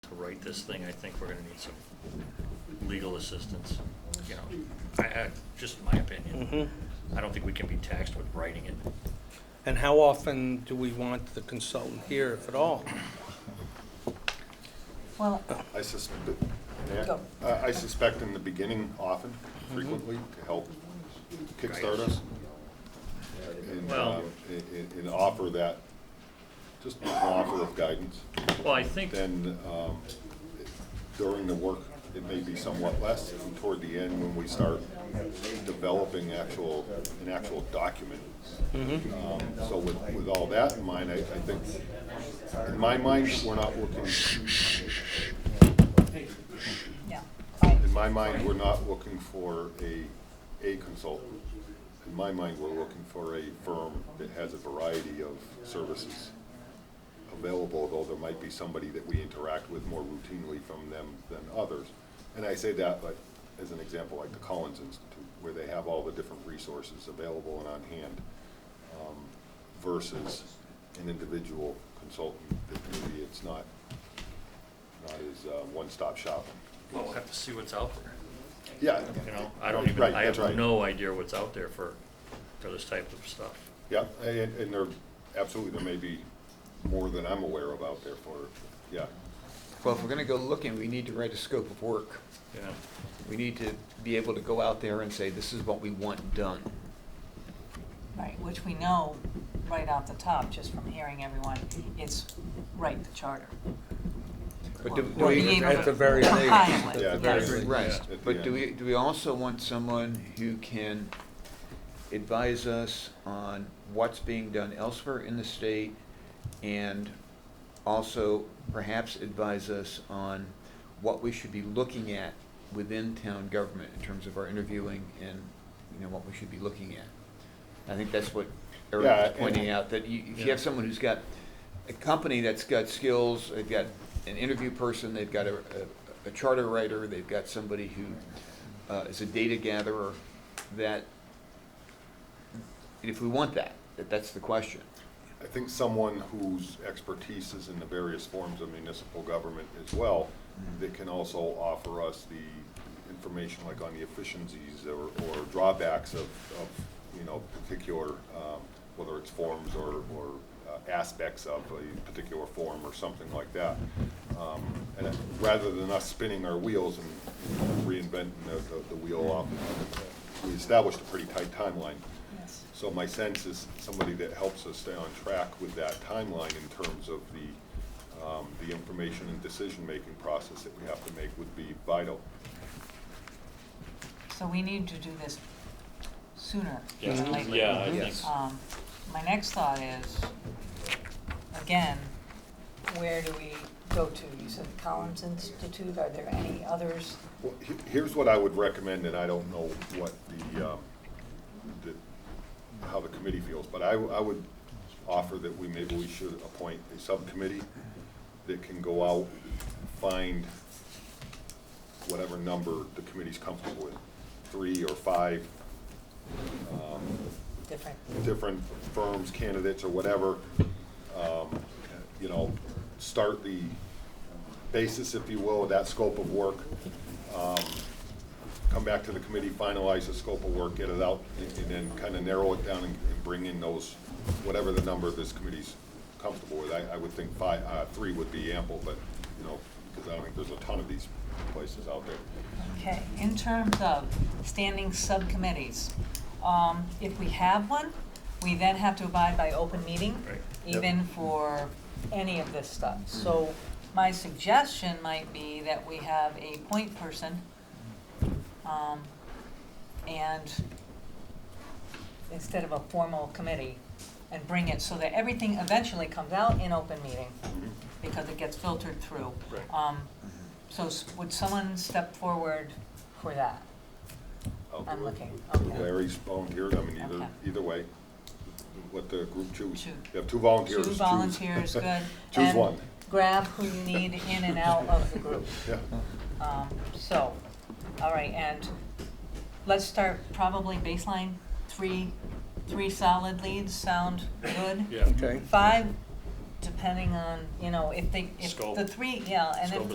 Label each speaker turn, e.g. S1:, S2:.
S1: to write this thing, I think we're gonna need some legal assistance, you know, I, I, just my opinion. I don't think we can be taxed with writing it.
S2: And how often do we want the consultant here, if at all?
S3: Well,
S4: I suspect, yeah,
S3: Go.
S4: I I suspect in the beginning often, frequently, to help kickstart us. And,
S1: Well-
S4: uh, and- and, and offer that, just an offer of guidance.
S1: Well, I think,
S4: Then, um, during the work, it may be somewhat less, and toward the end, when we start developing actual, an actual document. Um, So with, with all that in mind, I, I think, in my mind, we're not looking
S3: yeah, I,
S4: In my mind, we're not looking for a, a consultant. In my mind, we're looking for a firm that has a variety of services available, though there might be somebody that we interact with more routinely from them than others. And I say that, like, as an example, like the Collins Institute, where they have all the different resources available and on hand um, versus an individual consultant that maybe it's not, not as uh, one-stop shopping.
S1: oh, well, we'll have to see what's out there,
S4: Yeah.
S1: you know, I don't even,
S4: Right,
S1: I
S4: that's
S1: have
S4: right.
S1: no idea what's out there for, for this type of stuff.
S4: Yeah, and, and there, absolutely, there may be more than I'm aware of out there for, yeah.
S5: Well, if we're gonna go looking, we need to write a scope of work.
S1: Yeah,
S5: We need to be able to go out there and say, this is what we want done.
S3: right, which we know right off the top, just from hearing everyone, it's write the charter.
S5: But do, do
S3: Or
S5: we,
S3: be able
S2: at
S3: to
S2: the very least,
S3: comply with,
S4: Yeah, at the
S3: yes.
S4: very
S5: right,
S1: Yeah.
S5: but do we, do we also want someone who can advise us on what's being done elsewhere in the state? And also perhaps advise us on what we should be looking at within town government in terms of our interviewing and, you know, what we should be looking at. I think that's what Eric
S4: Yeah,
S5: was
S4: and-
S5: pointing out, that you, if you have
S1: Yeah.
S5: someone who's got a company that's got skills, they've got an interview person, they've got a, a, a charter writer, they've got somebody who uh, is a data gatherer, that, if we want that, that that's the question.
S4: I think someone whose expertise is in the various forms of municipal government as well, that can also offer us the information like on the efficiencies or, or drawbacks of, of, you know, particular, um, whether it's forms or, or uh, aspects of a particular form or something like that. Um, And it- rather than us spinning our wheels and reinventing the, the- the wheel off, we established a pretty tight timeline.
S3: Yes.
S4: So my sense is somebody that helps us stay on track with that timeline in terms of the, um, the information and decision-making process that we have to make would be vital.
S3: So we need to do this sooner
S1: Yeah.
S3: than later.
S1: Yeah, I
S5: Yes.
S1: think-
S3: Um, my next thought is, again, where do we go to? You said Collins Institute, are there any others?
S4: Well, he- here's what I would recommend, and I don't know what the, um, the, how the committee feels, but I, w- I would offer that we, maybe we should appoint a subcommittee that can go out, find whatever number the committee's comfortable with, three or five,
S3: Different,
S4: different firms, candidates, or whatever, um, you know, start the basis, if you will, of that scope of work. um, Come back to the committee, finalize the scope of work, get it out, and and then kind of narrow it down and and bring in those, whatever the number this committee's comfortable with. I, I would think five, uh, three would be ample, but, you know, because I don't think there's a ton of these places out there.
S3: okay. In terms of standing subcommittees, um, if we have one, we then have to abide by open meeting.
S1: Right.
S3: even for any of this stuff. So my suggestion might be that we have a point person, um, and instead of a formal committee, and bring it so that everything eventually comes out in open meeting, because it gets filtered through.
S1: Mm-hmm. Right.
S3: Um, so s- would someone step forward for that?
S4: I'll do
S3: I'm
S4: it.
S3: looking, okay.
S4: Larry's volunteered, I mean,
S3: Okay.
S4: either, either way, let the group choose.
S3: Choose.
S4: You have two volunteers.
S3: Two
S4: choose.
S3: volunteers, good.
S4: Choose
S3: And
S4: one.
S3: Grab who you need in and out of the group.
S4: Yeah,
S3: Um, so, all right, and let's start probably baseline, three, three solid leads, sound good?
S1: yeah.
S2: Okay.
S3: Five, depending on, you know, if they, if
S1: Scope.
S3: the three, yeah, and
S1: Scope
S3: if